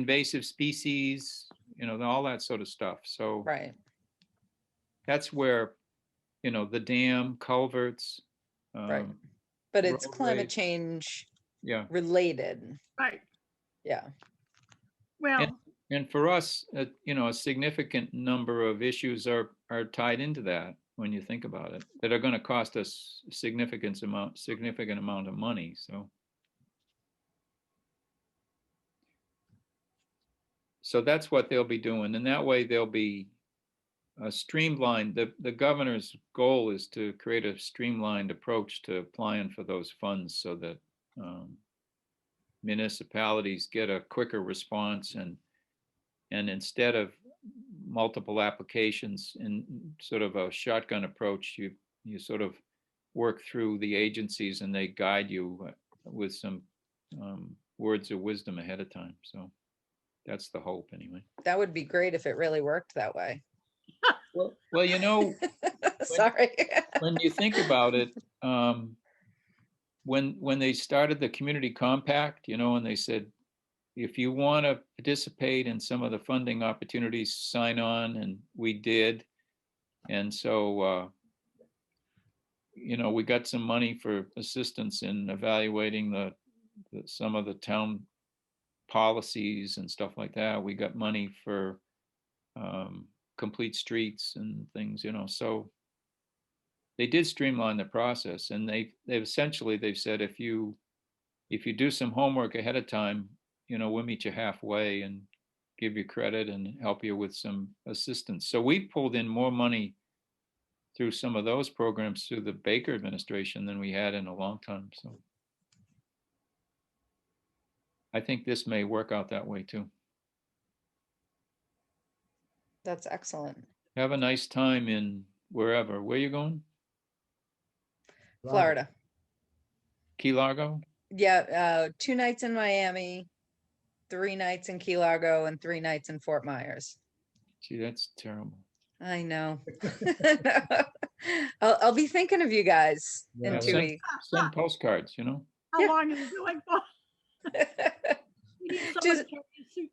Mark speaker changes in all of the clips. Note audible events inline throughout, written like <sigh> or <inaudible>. Speaker 1: invasive species, you know, all that sort of stuff. So
Speaker 2: Right.
Speaker 1: that's where, you know, the dam culverts.
Speaker 2: Right.
Speaker 1: um,
Speaker 2: But it's climate
Speaker 1: roadways.
Speaker 2: change
Speaker 1: Yeah,
Speaker 2: related.
Speaker 3: Right,
Speaker 2: Yeah.
Speaker 3: well,
Speaker 1: and for us, uh, you know, a significant number of issues are, are tied into that when you think about it, that are going to cost us significant amount, significant amount of money, so. So that's what they'll be doing, and that way they'll be uh, streamlined. The, the governor's goal is to create a streamlined approach to applying for those funds so that um, municipalities get a quicker response and, and instead of multiple applications in sort of a shotgun approach, you, you sort of work through the agencies and they guide you uh, with some um, words of wisdom ahead of time, so that's the hope anyway.
Speaker 2: That would be great if it really worked that way. <laughs>
Speaker 1: Well, well, you know,
Speaker 2: Sorry. <laughs>
Speaker 1: when you think about it, um, when, when they started the community compact, you know, and they said, if you want to participate in some of the funding opportunities, sign on, and we did. And so, uh, you know, we got some money for assistance in evaluating the, the- some of the town policies and stuff like that. We got money for, um, complete streets and things, you know, so they did streamline the process and they, they've essentially, they've said, if you, if you do some homework ahead of time, you know, we'll meet you halfway and give you credit and help you with some assistance. So we pulled in more money through some of those programs through the Baker administration than we had in a long time, so. I think this may work out that way too.
Speaker 2: That's excellent.
Speaker 1: Have a nice time in wherever. Where you going?
Speaker 2: Florida.
Speaker 1: Key Largo?
Speaker 2: Yeah. Uh, two nights in Miami, three nights in Key Largo, and three nights in Fort Myers.
Speaker 1: Gee, that's terrible.
Speaker 2: I know.
Speaker 1: <laughs>
Speaker 2: <laughs> I'll, I'll be thinking of you guys
Speaker 1: Yeah,
Speaker 2: in two
Speaker 1: same.
Speaker 2: weeks.
Speaker 1: Send postcards, you know?
Speaker 3: how
Speaker 2: Yeah.
Speaker 3: long is it going for? <laughs>
Speaker 2: <laughs>
Speaker 3: We need someone
Speaker 2: Just-
Speaker 3: to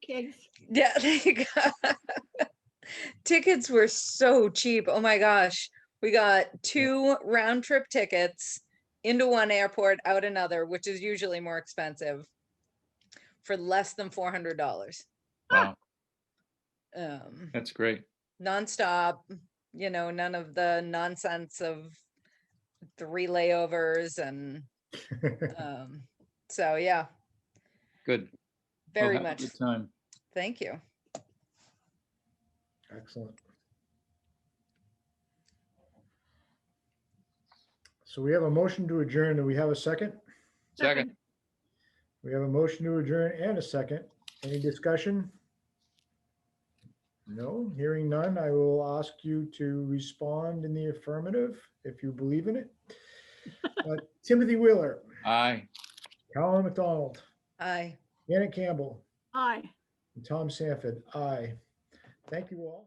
Speaker 3: carry a suitcase.
Speaker 2: Yeah, <laughs> there you go. Tickets were so cheap. Oh my gosh. We got two round trip tickets into one airport, out another, which is usually more expensive for less than $400. <laughs>
Speaker 1: Wow,
Speaker 2: Um,
Speaker 1: that's great.
Speaker 2: nonstop, you know, none of the nonsense of three layovers. And um, so, yeah,
Speaker 1: Good. Well,
Speaker 2: very
Speaker 1: have a
Speaker 2: much.
Speaker 1: Good
Speaker 2: <laughs>
Speaker 1: time.
Speaker 2: Thank you.
Speaker 4: Excellent. So we have a motion to adjourn. Do we have a second?
Speaker 1: Second,
Speaker 4: We have a motion to adjourn and a second. Any discussion? No, hearing none. I will ask you to respond in the affirmative if you believe in it. Uh, Timothy Wheeler,
Speaker 1: aye.
Speaker 4: Colin McDonald,
Speaker 2: Aye.
Speaker 4: Janet Campbell,
Speaker 3: Aye.
Speaker 4: and Tom Sanford, aye. Thank you all.